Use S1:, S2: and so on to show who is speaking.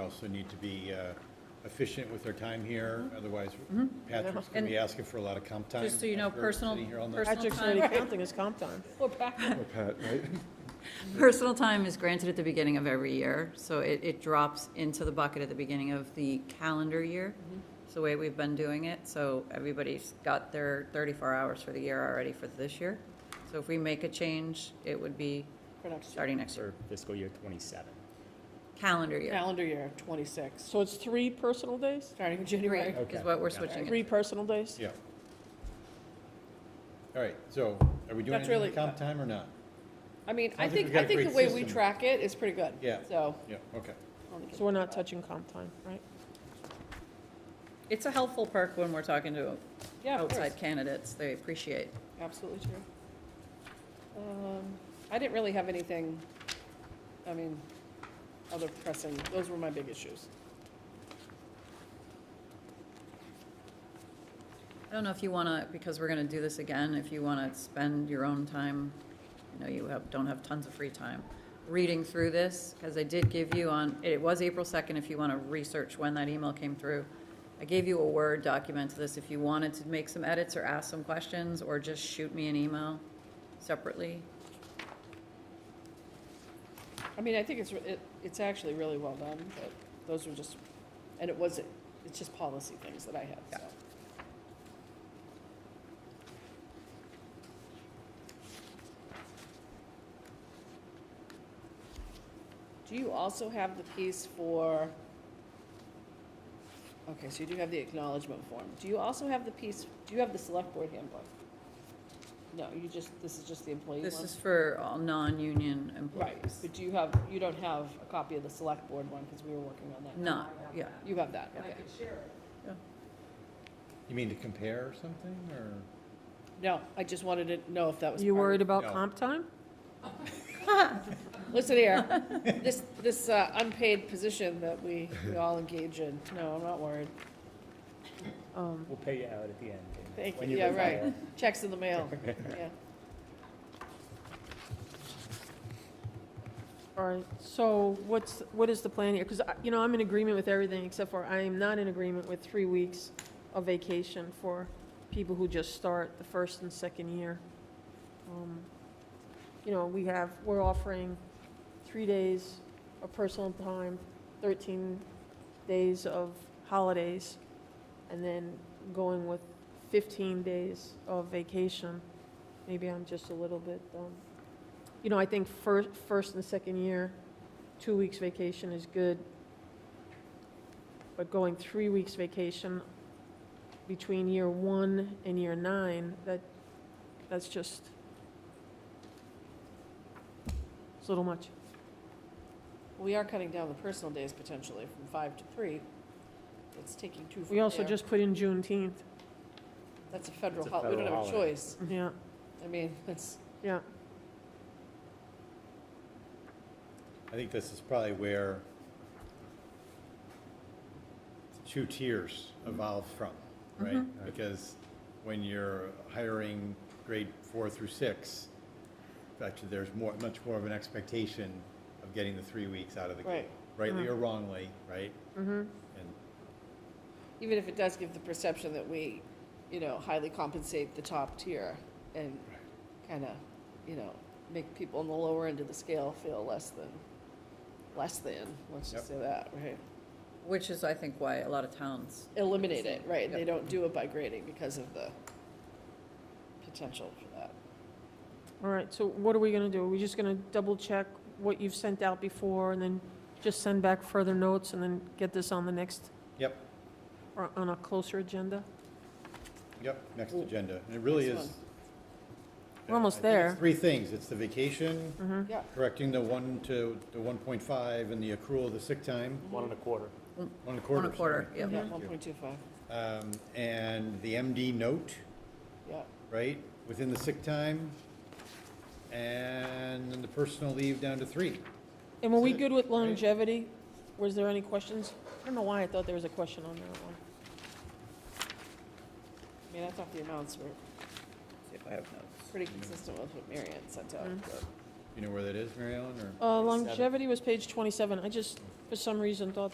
S1: also need to be uh, efficient with our time here,
S2: Mm-hmm.
S1: otherwise Patrick's going to be asking for a lot of comp time.
S3: Just so you know,
S1: after
S3: personal-
S1: sitting here all night.
S3: personal
S2: Patrick's not even
S3: time.
S2: counting his comp time.
S3: We're back.
S4: Oh, Pat, right?
S5: Personal time is granted at the beginning of every year, so it, it drops into the bucket at the beginning of the calendar year.
S2: Mm-hmm.
S5: It's the way we've been doing it, so everybody's got their thirty-four hours for the year already for this year. So if we make a change, it would be
S2: For next year.
S5: starting next year,
S6: for fiscal year twenty-seven.
S5: calendar year.
S2: Calendar year, 26,
S7: So it's three personal days?
S2: starting in
S5: Three
S2: January.
S5: is what we're switching
S7: Three
S5: it.
S7: personal days?
S1: Yeah. All right, so are we doing
S2: That's
S1: anything
S2: really-
S1: with comp time or not?
S2: I mean, I
S1: Sounds like we've
S2: think,
S1: got
S2: I
S1: a
S2: think
S1: great
S2: the way we
S1: system.
S2: track it is pretty good.
S1: Yeah.
S2: So.
S1: Yeah, okay.
S2: I don't think
S7: So we're not touching comp time, right?
S5: It's a helpful perk when we're talking to
S2: it's- Yeah, of course.
S5: outside candidates, they appreciate.
S2: Absolutely true. Um, I didn't really have anything, I mean, other pressing, those were my big issues.
S5: I don't know if you want to, because we're going to do this again, if you want to spend your own time, I know you have, don't have tons of free time, reading through this, because I did give you on, it was April 2nd, if you want to research when that email came through. I gave you a Word document to this, if you wanted to make some edits or ask some questions, or just shoot me an email separately.
S2: I mean, I think it's, re- it, it's actually really well done, but those were just, and it wasn't, it's just policy things that I had, so. Do you also have the piece for, okay, so you do have the acknowledgement form. Do you also have the piece, do you have the select board handbook? No, you just, this is just the employee one?
S5: This is for all non-union
S2: Right,
S5: employees.
S2: but do you have, you don't have a copy of the select board one, because we were working on that.
S5: Not, yeah.
S2: You have that, okay.
S1: You mean to compare or something, or?
S2: No, I just wanted to know if that was.
S7: You
S2: part
S7: worried
S2: of-
S7: about
S1: No.
S7: comp time?
S2: Listen here, this, this uh, unpaid position that we, we all engage in, no, I'm not worried.
S7: Um,
S6: We'll pay you out at the end. and
S2: Thank
S6: when
S2: you. Yeah,
S6: retire.
S2: right. Checks in the mail, yeah.
S7: All right, so what's, what is the plan here? Because, you know, I'm in agreement with everything, except for I am not in agreement with three weeks of vacation for people who just start the first and second year. Um, You know, we have, we're offering three days of personal time, 13 days of holidays, and then going with 15 days of vacation. Maybe I'm just a little bit, um, you know, I think first, first and second year, two weeks vacation is good. But going three weeks vacation between year one and year nine, that, that's just, it's a little much.
S2: We are cutting down the personal days potentially from five to three. It's taking two from
S7: We also
S2: there.
S7: just put in Juneteenth,
S2: That's a federal
S6: It's a
S2: hol, we don't
S6: federal
S2: have a
S6: holiday.
S2: choice.
S7: yeah,
S2: I mean, it's,
S7: yeah.
S1: I think this is probably where two tiers evolve from, right? Because when you're hiring grade four through six, actually, there's more, much more of an expectation of getting the three weeks out of the gate.
S2: Right.
S1: Rightly or wrongly, right?
S7: Mm-hmm.
S1: And
S2: even if it does give the perception that we, you know, highly compensate the top tier and kind of, you know, make people on the lower end of the scale feel less than, less than, let's just say that, right?
S5: Which is, I think, why a lot of towns
S2: Eliminate it, right? And they don't do it by grading because of the potential for that.
S7: All right, so what are we gonna do? Are we just gonna double check what you've sent out before and then just send back further notes and then get this on the next,
S1: Yep,
S7: or on a closer agenda?
S1: yep, next agenda. And it really
S2: Next
S1: is.
S2: one.
S7: We're almost
S1: I think it's
S7: there.
S1: Three things. It's the vacation,
S2: Yeah,
S1: correcting the one to, the one point five and the accrual of the sick time,
S6: One and a quarter.
S1: one and a quarter.
S5: on a quarter,
S1: sorry.
S5: yeah.
S2: yeah, one point two five,
S1: Um, and the MD note,
S2: yeah.
S1: right, within the sick time, and then the personal leave down to three.
S7: And were we
S1: Is it-
S7: good with
S1: right?
S7: longevity? Was there any questions? I don't know why I thought there was a question on that one.
S2: I mean, I thought the amounts were pretty consistent with what Marianne sent out, but-
S1: You know where that is, Mary Ellen, or?
S7: Uh, longevity was page twenty-seven. I just, for some reason, thought